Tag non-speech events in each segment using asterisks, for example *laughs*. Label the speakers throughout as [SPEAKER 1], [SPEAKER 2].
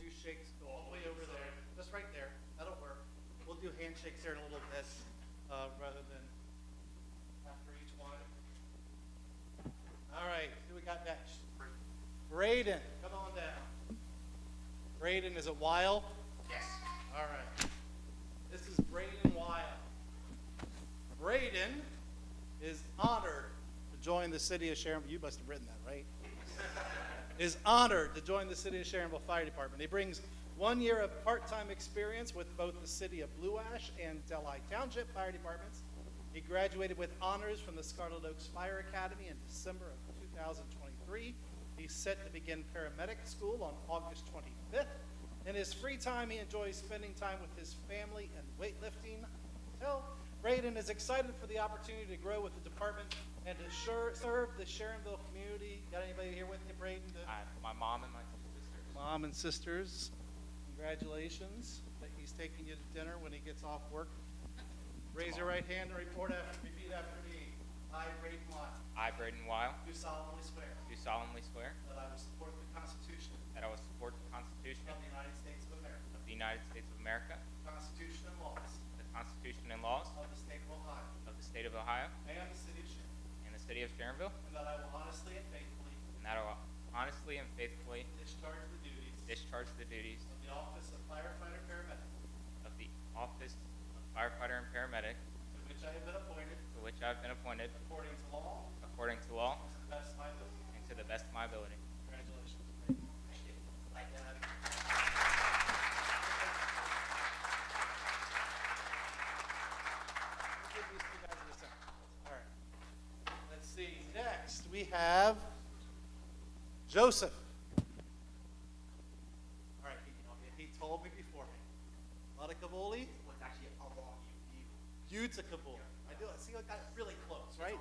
[SPEAKER 1] do shakes, go all the way over there, just right there, that'll work. We'll do handshakes here in a little bit, uh, rather than after each one. All right, who we got next? Braden, come on down. Braden, is it Weil? Yes. All right. This is Braden Weil. Braden is honored to join the city of Sharon. You must have written that, right? is honored to join the City of Sharonville Fire Department. He brings one year of part-time experience with both the City of Blue Ash and Delhi Township Fire Departments. He graduated with honors from the Scarlet Oaks Fire Academy in December of 2023. He's set to begin paramedic school on August 25th. In his free time, he enjoys spending time with his family and weightlifting. Tell Braden is excited for the opportunity to grow with the department and to sure, serve the Sharonville community. Got anybody here with you, Braden? to-
[SPEAKER 2] I, my mom and my two sisters.
[SPEAKER 1] Mom and sisters, congratulations that he's taking you to dinner when he gets off work. Raise your right hand and report after, repeat after me. I, Braden Watt,
[SPEAKER 2] I, Braden Weil,
[SPEAKER 1] do solemnly swear
[SPEAKER 2] do solemnly swear
[SPEAKER 1] that I will support the Constitution
[SPEAKER 2] that I will support the Constitution
[SPEAKER 1] of the United States of America,
[SPEAKER 2] of the United States of America,
[SPEAKER 1] the Constitution and laws
[SPEAKER 2] the Constitution and laws
[SPEAKER 1] of the state of Ohio,
[SPEAKER 2] of the State of Ohio
[SPEAKER 1] and the city of Sharon,
[SPEAKER 2] and the City of Sharonville,
[SPEAKER 1] and that I will honestly and faithfully
[SPEAKER 2] and that I will honestly and faithfully
[SPEAKER 1] discharge the duties
[SPEAKER 2] discharge the duties
[SPEAKER 1] of the office of firefighter paramedic
[SPEAKER 2] of the office of firefighter and paramedic
[SPEAKER 1] to which I have been appointed
[SPEAKER 2] to which I have been appointed
[SPEAKER 1] according to law
[SPEAKER 2] according to law
[SPEAKER 1] and to the best of my ability.
[SPEAKER 2] and to the best of my ability.
[SPEAKER 1] Congratulations. Let's see, next, we have Joseph. All right, he- he told me beforehand. Latakavoli,
[SPEAKER 3] what's actually above you. you.
[SPEAKER 1] Utakavoli. I do it, see, I got it really close, right?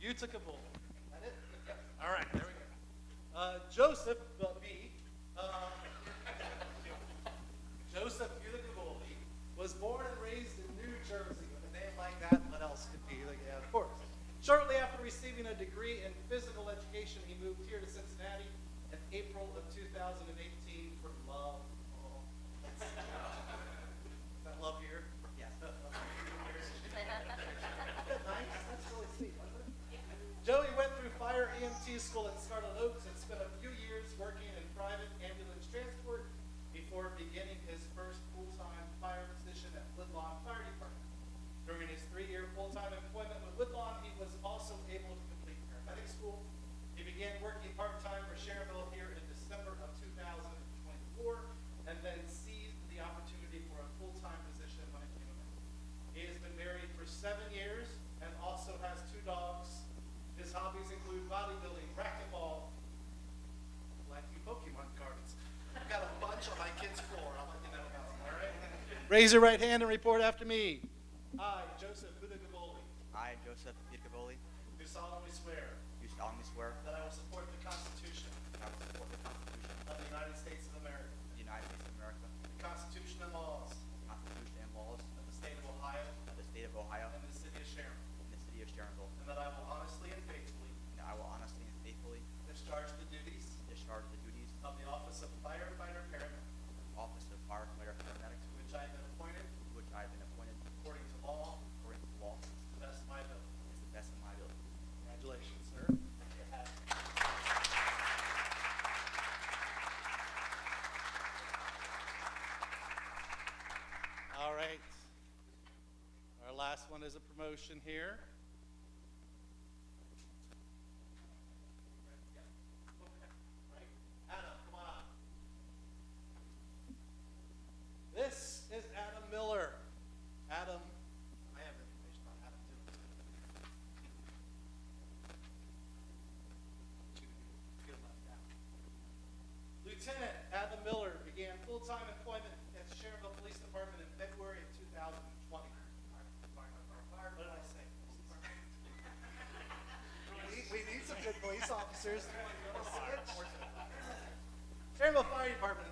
[SPEAKER 1] Utakavoli. That it? All right, there we go. Uh, Joseph, but me, uh, Joseph Unicavoli was born and raised in New Jersey. With a name like that, what else could be? Like, yeah, of course. Shortly after receiving a degree in physical education, he moved here to Cincinnati in April of 2018 for love. Oh. Is that love here? Yes. *laughs* nice? That's really sweet, wasn't it? Joey went through fire EMT school at Scarlet Oaks and spent a few years working in private ambulance transport before beginning his first full-time fire position at Woodlawn Fire Department. During his three-year full-time employment with Woodlawn, he was also able to complete paramedic school. He began working part-time for Cherville here in December of 2024 and then seized the opportunity for a full-time position when it came available. He has been married for seven years and also has two dogs. His hobbies include bodybuilding, racquetball, like you Pokemon cards. I've got a bunch on my kid's floor. I'll let you know about them, all right? Raise your right hand and report after me. I, Joseph Budagavoli,
[SPEAKER 3] I, Joseph Iacoboli,
[SPEAKER 1] do solemnly swear
[SPEAKER 3] do solemnly swear
[SPEAKER 1] that I will support the Constitution
[SPEAKER 3] that I will support the Constitution
[SPEAKER 1] of the United States of America,
[SPEAKER 3] of the United States of America,
[SPEAKER 1] the Constitution and laws
[SPEAKER 3] the Constitution and laws
[SPEAKER 1] of the state of Ohio
[SPEAKER 3] of the State of Ohio
[SPEAKER 1] and
[SPEAKER 3] and
[SPEAKER 1] the city of Sharon,
[SPEAKER 3] the City of Sharonville,
[SPEAKER 1] and that I will honestly and faithfully
[SPEAKER 3] and that I will honestly and faithfully
[SPEAKER 1] discharge the duties
[SPEAKER 3] discharge the duties of
[SPEAKER 1] of the office of firefighter paramedic,
[SPEAKER 3] the office of firefighter paramedic
[SPEAKER 1] to which I have been appointed
[SPEAKER 3] to which I have been appointed
[SPEAKER 1] according to law
[SPEAKER 3] according to law
[SPEAKER 1] to
[SPEAKER 3] and
[SPEAKER 1] the best of my ability.
[SPEAKER 3] to the best of my ability.
[SPEAKER 1] Congratulations, sir. All right. Our last one is a promotion here. Adam, come on up. This is Adam Miller. Adam, I have information on Adam too. Lieutenant Adam Miller began full-time employment at the Sharonville Police Department in February of 2020. What did I say? We need- We need some good police officers. Sharonville Fire Department